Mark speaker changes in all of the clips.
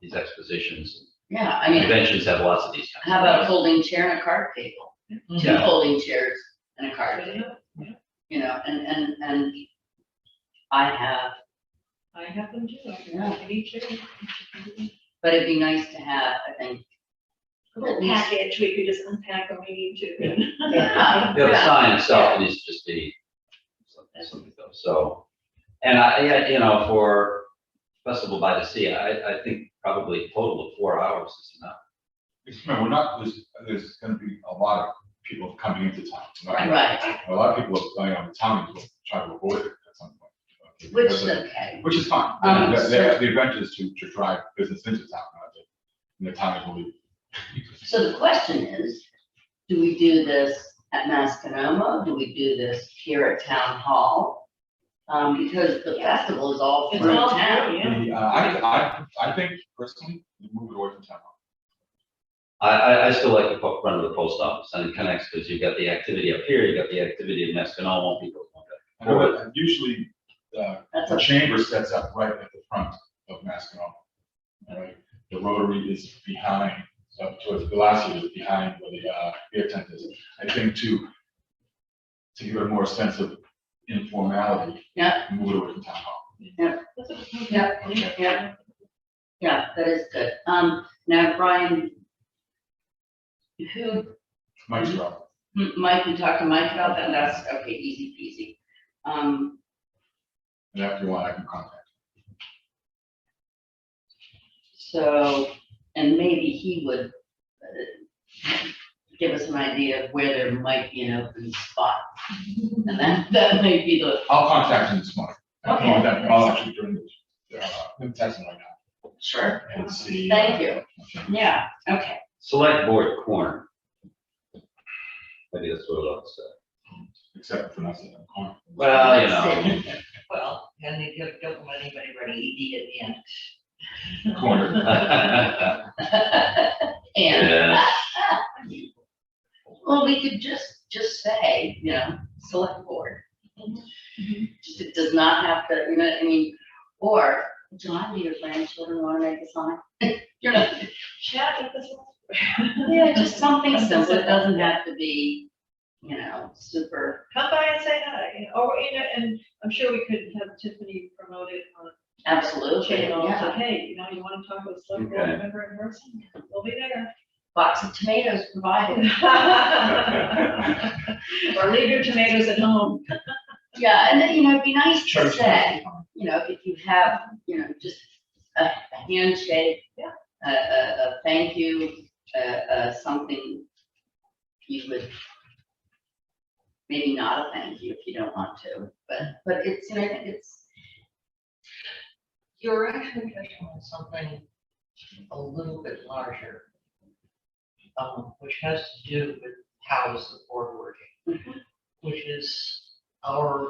Speaker 1: these expositions.
Speaker 2: Yeah, I mean,
Speaker 1: Conventions have lots of these. kinds of
Speaker 2: how about a
Speaker 1: things.
Speaker 2: folding chair and a card table? Two
Speaker 1: Mm-hmm. Yeah.
Speaker 2: folding chairs and a card table, you know, and, and, and I have,
Speaker 3: I have them too.
Speaker 2: Yeah.
Speaker 3: I need to.
Speaker 2: but it'd be nice to have, I think.
Speaker 3: A little
Speaker 2: at least-
Speaker 3: package, we could just unpack when we need to.
Speaker 2: Oh, Yeah,
Speaker 1: Yeah, the
Speaker 2: yeah.
Speaker 1: sign itself needs to just be something, something though, so. And I, yeah, you know, for Festival by the Sea, I, I think probably a total of four hours is enough.
Speaker 4: Because remember, we're not, there's, there's gonna be a lot of people coming into town. We're not gonna-
Speaker 2: Right,
Speaker 4: A lot of people are going on the town, will try to avoid it at some point. okay,
Speaker 2: which
Speaker 4: because
Speaker 2: is
Speaker 4: of-
Speaker 2: okay.
Speaker 4: Which is fine.
Speaker 2: Um,
Speaker 4: The, the-
Speaker 2: so-
Speaker 4: the adventure is to, to drive business into town, not to, and the town is really.
Speaker 2: So the question is, do we do this at Mascanoma? Do we do this here at Town Hall? Um, because the festival is all
Speaker 3: It's
Speaker 2: through
Speaker 3: all
Speaker 2: town.
Speaker 3: free, yeah.
Speaker 4: The, uh, I, I, I think personally, we move it away from town. hall.
Speaker 1: I, I, I still like to po- run to the post office and it connects, because you've got the activity up here, you've got the activity in Escanoma, people. want that.
Speaker 4: I know that usually, uh,
Speaker 2: That's
Speaker 4: the
Speaker 2: a,
Speaker 4: chamber sets up right at the front of Mascanoma. All right, the Rotary is behind, up towards Glacier is behind where the, uh, beer tent is. I think to, to give it a more sense of informality.
Speaker 2: Yeah.
Speaker 4: Move it over to town hall.
Speaker 3: That's a-
Speaker 2: Yeah.
Speaker 4: Okay.
Speaker 2: yeah. Yeah, that is good. Um, now, Brian, who
Speaker 4: Mike's wrong.
Speaker 2: M- Mike, we talked to Mike about that, that's, okay, easy peasy. Um,
Speaker 4: And after you want, I can contact.
Speaker 2: so, and maybe he would uh, give us an idea of where there might be an open spot. And that, that may be the,
Speaker 4: I'll contact him this morning. I'll
Speaker 2: Okay.
Speaker 4: contact- I'll actually bring the, uh, I'm texting right now
Speaker 2: sure,
Speaker 4: and see.
Speaker 2: Thank you. yeah, okay.
Speaker 1: Select board corner. Maybe that's what I'll say.
Speaker 4: Except for not sitting on the corner.
Speaker 1: Well, you know,
Speaker 5: Well, and they don't, don't want anybody running ED at the end.
Speaker 4: Corner.
Speaker 2: And,
Speaker 1: yeah,
Speaker 2: well, we could just, just say, you know, select board. Just, it does not have to, you know, I mean, or, John, do your grandchildren wanna make a sign? You're not,
Speaker 3: Chat with us.
Speaker 2: Yeah, just something simple, it doesn't have to be, you know, super,
Speaker 3: Come by and say hi, or, you know, and I'm sure we could have Tiffany promote it on
Speaker 2: absolutely,
Speaker 3: channel,
Speaker 2: yeah.
Speaker 3: so, hey, you know, you wanna talk with some board
Speaker 1: Okay.
Speaker 3: member in person, we'll be there.
Speaker 2: Box of tomatoes provided.
Speaker 3: Or leave your tomatoes at home.
Speaker 2: Yeah, and then, you know, it'd be nice to
Speaker 4: Church.
Speaker 2: say, you know, if you have, you know, just a a handshake.
Speaker 3: Yeah.
Speaker 2: A, a, a thank you, uh, uh, something you would, maybe not a thank you if you don't want to, but, but it's, you know, I think it's,
Speaker 5: You're actually touching on something a little bit larger, um, which has to do with how is the board working? Which is our,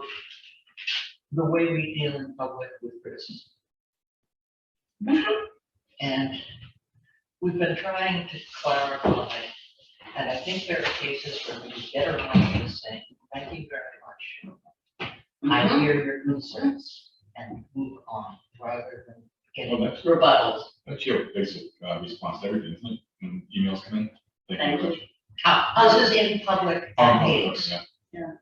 Speaker 5: the way we deal in public with criticism. And we've been trying to clarify, and I think there are cases where we get around this saying, thank you very much. I
Speaker 2: Mhm.
Speaker 5: hear your concerns and move on rather than
Speaker 4: Well,
Speaker 5: getting.
Speaker 4: that's,
Speaker 2: rebuttals.
Speaker 4: that's your basic, uh, response to everything, isn't it? When emails come in.
Speaker 2: Thank you.
Speaker 5: Uh, Other in public
Speaker 4: Um,
Speaker 5: meetings,
Speaker 4: yeah.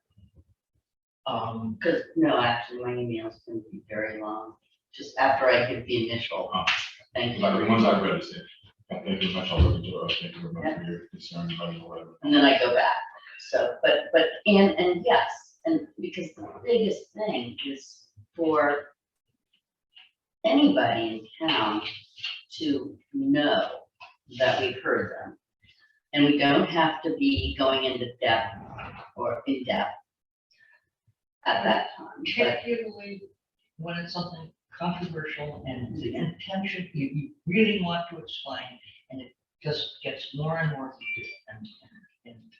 Speaker 5: um,
Speaker 2: Because, no, actually, my emails can be very long, just after I give the initial,
Speaker 4: Oh.
Speaker 2: thank
Speaker 4: Like the
Speaker 2: you.
Speaker 4: ones I've read, it's, uh, thank you very much, I'll look into it, thank you very much for your concern, about it, or whatever.
Speaker 2: And then I go back, so, but, but, and, and yes, and because the biggest thing is for anybody in town to know that we've heard them. And we don't have to be going into depth or in depth at that time, but
Speaker 5: particularly when it's something controversial and the intention, you, you really want to explain, and it just gets more and more heated and, and, and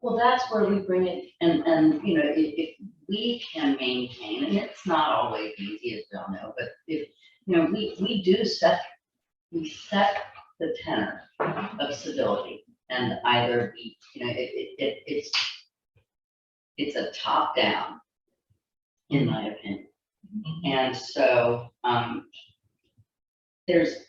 Speaker 2: Well, that's where we bring it, and, and, you know, if, if we can maintain, and it's not always easy, as we all know, but if, you know, we, we do set, we set the tenor of civility, and either we, you know, it, it, it, it's, it's a top-down, in my opinion. And so, um, there's